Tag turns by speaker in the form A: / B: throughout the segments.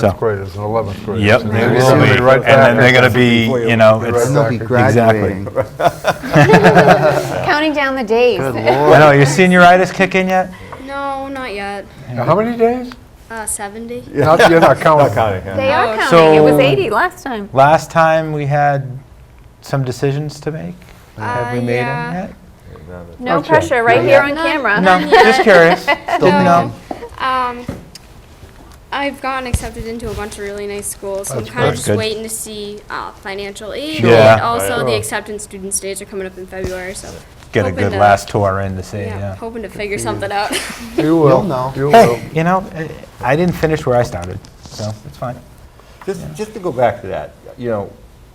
A: So-
B: 10th graders and 11th graders.
A: Yep, they
B: And they're
A: will
B: gonna
A: be,
B: right
A: and
B: back
A: then they're
B: at
A: gonna
B: this.
A: be, you know,
B: Right
A: it's,
B: back.
A: I
B: They'll
C: be
A: Exactly.
C: graduating.
D: Counting down the days.
C: Good lord.
A: know, your senioritis kick in yet?
E: No, not yet.
B: How many days?
E: Uh, 70.
B: Not- You're not counting.
D: They are
E: Oh,
D: counting.
A: So-
D: it was 80 last time.
A: Last time, we had some decisions to make. Have we
E: Uh,
A: made
E: yeah.
A: them
D: No
B: Okay.
D: pressure, right here on
E: No.
D: camera.
A: yet? No, just curious. Didn't know.
E: Um, I've gotten accepted into a bunch of really nice schools, so
B: That's
E: I'm kind
A: great.
E: of just
A: Good.
E: waiting to see uh, financial aid.
A: Yeah.
E: And also,
B: Right.
E: the acceptance students' days are coming up in February, so
A: Get a
E: hoping
A: good
E: to-
A: last tour in to see,
E: yeah,
A: yeah.
E: hoping to figure something out.
B: You will.
C: You'll know.
B: You will.
A: Hey, you know, eh, I didn't finish where I started, so it's fine.
F: Just, just to go back to that, you know,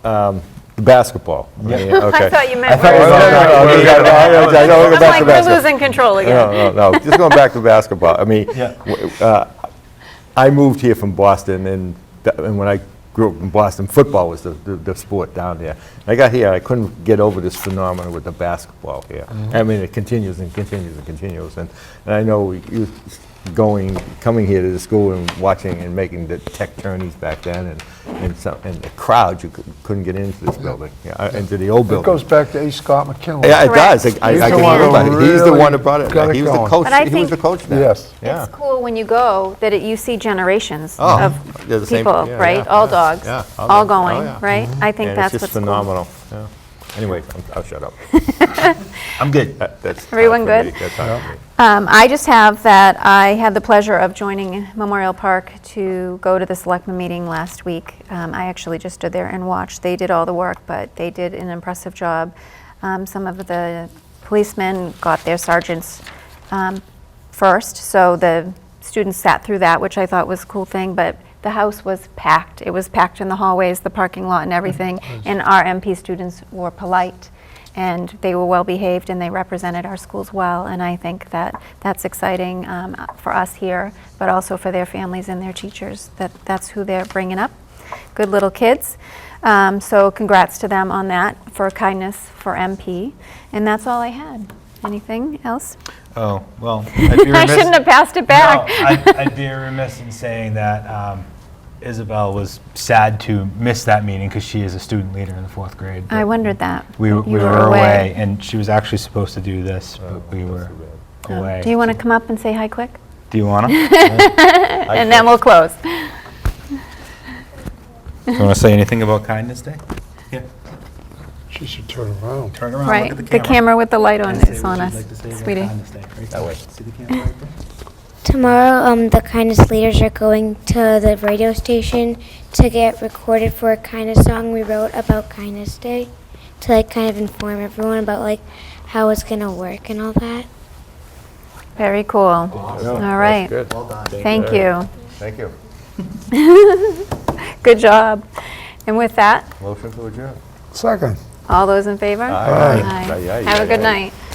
F: um, basketball. I mean,
D: I
F: Okay.
D: thought you meant
A: thought
D: we
A: you
F: No,
D: were
F: no, no,
A: said-
D: sorry.
F: no, we got- I- I- I don't go
D: I'm
F: back to
D: like, we're
F: basketball.
D: losing control again.
F: No, no, no, just going back to basketball. I mean,
A: Yeah.
F: w- uh, I moved here from Boston, and th- and when I grew up in Boston, football was the- the the sport down there. I got here, I couldn't get over this phenomenon with the basketball here. I mean, it continues and continues and continues, and and I know you going, coming here to the school and watching and making the tech tourneys back then, and and some- and the crowd, you cou- couldn't get into this building, yeah, uh, into the old
B: It
F: building.
B: goes back to A. Scott McKinley.
F: Yeah, it
D: Correct.
F: does. I- I-
B: He's
F: I
B: the
F: can
B: one who
F: remember. He's the one
B: really
F: who brought it.
B: got
F: back.
B: it
F: He was the
B: going.
F: coach,
D: But I
F: he was
D: think-
F: the coach then.
B: Yes.
F: Yeah.
D: It's cool when you go that it, you see generations
F: Oh,
D: of
F: they're the same-
D: people,
F: yeah,
D: right?
F: yeah,
D: all
F: yeah,
D: dogs,
F: yeah, all
D: all,
F: dogs. Oh,
D: going,
F: yeah.
D: right? I think
F: And
D: that's
F: it's just
D: what's
F: phenomenal. Yeah. Anyway, I'm- I'll shut up. I'm good. That- that's time
D: Everyone
F: for
D: good?
F: me. That's time for me.
D: cool. Um, I just have that I had the pleasure of joining Memorial Park to go to the selectman meeting last week. Um, I actually just stood there and watched. They did all the work, but they did an impressive job. Um, some of the policemen got their sergeants um, first, so the students sat through that, which I thought was a cool thing, but the house was packed. It was packed in the hallways, the parking lot and everything, and our MP students were polite, and they were well-behaved, and they represented our schools well, and I think that that's exciting um, for us here, but also for their families and their teachers, that that's who they're bringing up. Good little kids. Um, So congrats to them on that, for kindness for MP, and that's all I had. Anything else?
A: Oh, well.
D: I shouldn't have passed it back.
A: No, I'd, I'd be remiss in saying that um, Isabel was sad to miss that meeting because she is a student leader in the fourth grade.
D: I
A: but
D: wondered that.
A: We,
D: You
A: w- we were away, and she was actually supposed to do this, but we were
D: Oh,
A: away.
D: Do you want to come up and say hi quick?
A: Do you want to?
D: And then we'll close.
A: You want to say anything about Kindness Day? Yeah.
B: She should turn around.
A: Turn around,
D: Right, the camera with the light on is on us, sweetie.
A: That way. See the camera right there?
G: Tomorrow, um, the kindness leaders are going to the radio station to get recorded for a kindness song we wrote about kindness day, to like kind of inform everyone about like how it's gonna work and all that.
D: Very cool. All right, thank you.
F: Thank you.
D: Good job. And with that,
F: Motion to adjourn.
B: Second.
D: all those in favor?
F: Aye. Aye. Aye, aye,
D: Have a
F: aye,
D: good
F: aye.
D: night.